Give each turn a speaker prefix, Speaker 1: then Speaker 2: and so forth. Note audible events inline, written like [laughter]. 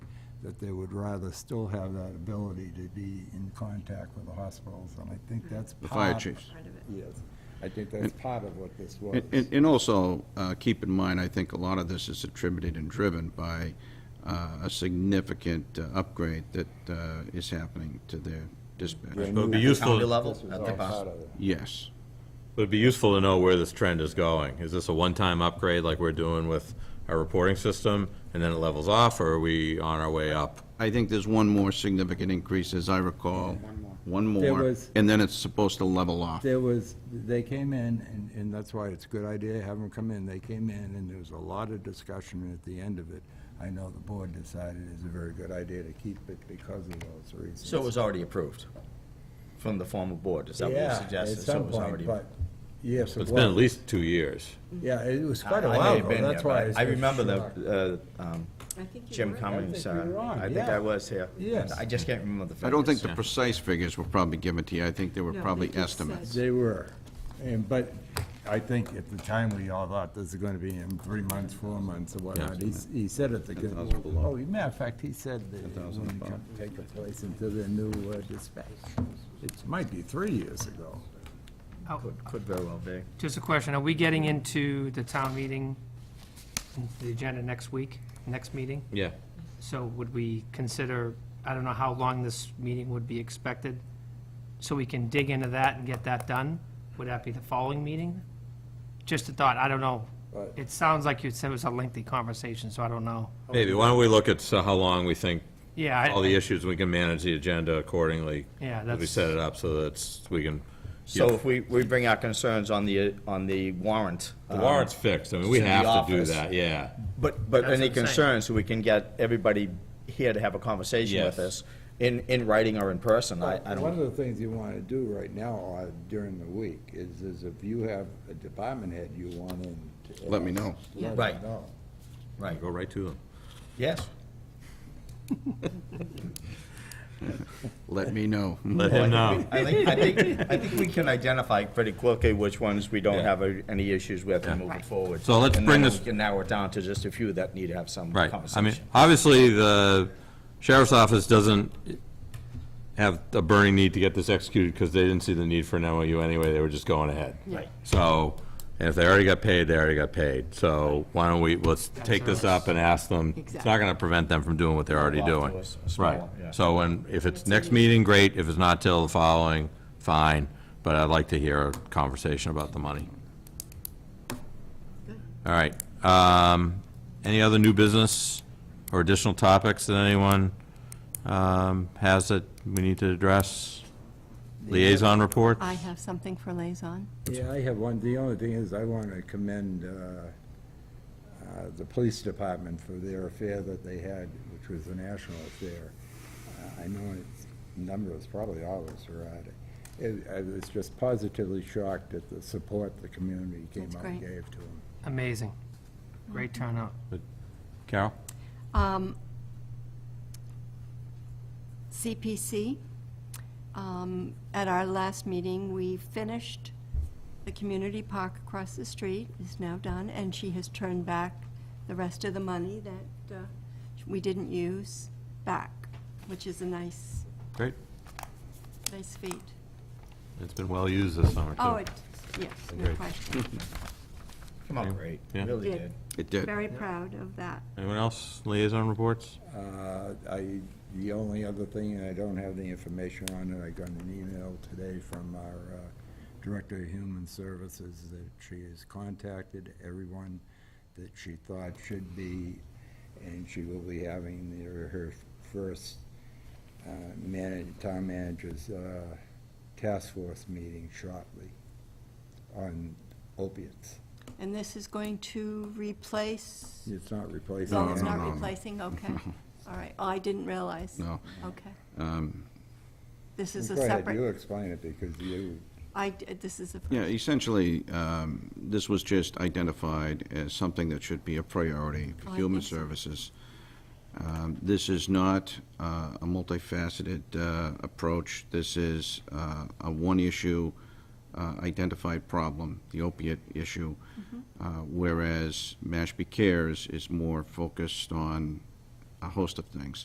Speaker 1: that they would rather still have that ability to be in contact with the hospitals, and I think that's part.
Speaker 2: The fire chiefs.
Speaker 3: part of it.
Speaker 1: Yes, I think that's part of what this was.
Speaker 2: And- And, and also, uh, keep in mind, I think a lot of this is attributed and driven by uh, a significant uh, upgrade that uh, is happening to their dispatch.
Speaker 1: Right.
Speaker 4: It would be
Speaker 5: At the county
Speaker 4: useful,
Speaker 5: level,
Speaker 1: This was
Speaker 5: at
Speaker 1: all
Speaker 5: the
Speaker 1: part
Speaker 5: cost.
Speaker 1: of it.
Speaker 2: Yes.
Speaker 4: would be useful to know where this trend is going. Is this a one-time upgrade like we're doing with our reporting system, and then it levels off, or are we on our way up?
Speaker 2: I think there's one more significant increase, as I recall.
Speaker 5: One more.
Speaker 2: One
Speaker 1: There
Speaker 2: more,
Speaker 1: was-
Speaker 2: and then it's supposed to level off.
Speaker 1: There was, they came in, and, and that's why it's a good idea, have them come in, they came in, and there was a lot of discussion, and at the end of it, I know the board decided it's a very good idea to keep it because of those reasons.
Speaker 5: So it was already approved from the former board, is that what you suggested? So it was already-
Speaker 1: Yeah, at some point, but, yes, it
Speaker 4: It's been at
Speaker 1: was.
Speaker 4: least two years.
Speaker 1: Yeah, it was quite a
Speaker 5: I may
Speaker 1: while
Speaker 5: have been
Speaker 1: ago,
Speaker 5: there,
Speaker 1: that's why.
Speaker 5: but
Speaker 1: was
Speaker 5: I
Speaker 1: so
Speaker 5: remember
Speaker 1: shocked.
Speaker 5: the, uh, um,
Speaker 3: I think you
Speaker 5: Jim
Speaker 3: were.
Speaker 5: Cummings,
Speaker 1: I think you were
Speaker 5: uh,
Speaker 1: on,
Speaker 5: I think
Speaker 1: yeah.
Speaker 5: I was here.
Speaker 1: Yes.
Speaker 5: I just can't remember the figures.
Speaker 2: I don't think the precise figures were probably given to you, I think they were
Speaker 3: No,
Speaker 2: probably
Speaker 3: they just
Speaker 2: estimates.
Speaker 1: They were, and, but I think at the time, we all thought this is gonna be in three months, four months, or whatnot. He, s- he said it's a good,
Speaker 2: 10,000 below.
Speaker 1: oh, matter of fact, he said that it
Speaker 2: 10,000
Speaker 1: wouldn't
Speaker 2: above.
Speaker 1: come take the place until the new uh, dispatch. It might be three years ago.
Speaker 5: Could- Could very well be.
Speaker 6: Just a question, are we getting into the town meeting, the agenda next week, next meeting?
Speaker 4: Yeah.
Speaker 6: So would we consider, I don't know how long this meeting would be expected, so we can dig into that and get that done? Would that be the following meeting? Just a thought, I don't know.
Speaker 1: Right.
Speaker 6: It sounds like you said it was a lengthy conversation, so I don't know.
Speaker 4: Maybe, why don't we look at uh, how long we think,
Speaker 6: Yeah,
Speaker 4: all the
Speaker 6: I,
Speaker 4: issues, we can manage the agenda accordingly.
Speaker 6: Yeah,
Speaker 4: as We
Speaker 6: that's-
Speaker 4: set it up so that's, we can,
Speaker 5: So
Speaker 4: Yeah.
Speaker 5: if we, we bring our concerns on the, on the warrant.
Speaker 4: the
Speaker 5: um,
Speaker 4: warrant's fixed, I mean, we
Speaker 5: to the
Speaker 4: have to do
Speaker 5: office.
Speaker 4: that, yeah.
Speaker 5: But, but any
Speaker 6: That's what I'm saying.
Speaker 5: concerns, so we can get everybody here to have a conversation with
Speaker 4: Yes.
Speaker 5: us, in, in writing or in person, I, I
Speaker 1: One
Speaker 5: don't,
Speaker 1: of the things you wanna do right now, or during the week, is, is if you have a department head you want in. to-
Speaker 2: Let me know.
Speaker 1: Let me
Speaker 5: Right.
Speaker 1: know.
Speaker 5: right,
Speaker 4: Go right to them.
Speaker 5: yes.
Speaker 2: Let me know.
Speaker 4: Let him know.
Speaker 5: I think, I think, I think we can identify pretty quickly which ones we don't
Speaker 4: Yeah.
Speaker 5: have uh, any issues with and moving
Speaker 3: Right.
Speaker 5: forward.
Speaker 4: So let's
Speaker 5: And
Speaker 4: bring
Speaker 5: then
Speaker 4: this-
Speaker 5: we can narrow it down to just a few that need to have some
Speaker 4: Right,
Speaker 5: conversation.
Speaker 4: I mean, obviously, the sheriff's office doesn't have a burning need to get this executed, because they didn't see the need for an MOU anyway, they were just going ahead.
Speaker 5: Right.
Speaker 4: So, and if they already got paid, they already got paid, so why don't we, let's take this up and ask them, it's not gonna prevent them from doing what they're already
Speaker 5: Well,
Speaker 4: doing.
Speaker 5: afterwards, it's
Speaker 4: Right,
Speaker 5: smaller, yeah.
Speaker 4: so when, if it's next meeting, great, if it's not till the following, fine, but I'd like to hear a conversation about the money. All right, um, any other new business or additional topics that anyone, um, has that we need to address? Liaison reports?
Speaker 7: I have something for liaison.
Speaker 1: Yeah, I have one. The only thing is, I want to commend uh, uh, the police department for their affair that they had, which was a national affair. Uh, I know its number is probably all of us were at it. It- I was just positively shocked at the support the community came
Speaker 7: That's
Speaker 1: out and
Speaker 7: great.
Speaker 1: gave to them.
Speaker 6: amazing. Great turnout.
Speaker 4: Carol?
Speaker 7: Um, CPC, um, at our last meeting, we finished the community park across the street, is now done, and she has turned back the rest of the money that uh, we didn't use back, which is a nice,
Speaker 4: Great.
Speaker 7: nice feat.
Speaker 4: It's been well used this summer, too.
Speaker 7: Oh, it, yes, no
Speaker 4: Great.
Speaker 7: question.
Speaker 5: Come on, great,
Speaker 4: Yeah.
Speaker 5: really
Speaker 7: Yeah.
Speaker 5: did.
Speaker 2: It did.
Speaker 7: Very proud of that.
Speaker 4: Anyone else? Liaison reports?
Speaker 1: Uh, I, the only other thing, and I don't have the information on it, I got an email today from our uh, Director of Human Services that she has contacted everyone that she thought should be, and she will be having their, her first uh, manag town manager's uh, task force meeting shortly on opiates.
Speaker 7: And this is going to replace?
Speaker 1: It's not replacing.
Speaker 7: Oh, it's
Speaker 1: any-
Speaker 7: not
Speaker 2: [laughs]
Speaker 7: replacing, okay. All right, oh, I didn't realize.
Speaker 2: No.
Speaker 7: Okay.
Speaker 2: Um,
Speaker 7: This is a
Speaker 1: Go ahead, you
Speaker 7: separate,
Speaker 1: explain it, because you
Speaker 7: I, d- this is a,
Speaker 2: Yeah, essentially, um, this was just identified as something that should be a priority
Speaker 7: Oh,
Speaker 2: for
Speaker 7: I
Speaker 2: human
Speaker 7: think so.
Speaker 2: services. Um, This is not uh, a multifaceted uh, approach. This is uh, a one-issue uh, identified problem, the opiate issue,
Speaker 7: Mm-hmm.
Speaker 2: uh, whereas Mashpee Cares is more focused on a host of things.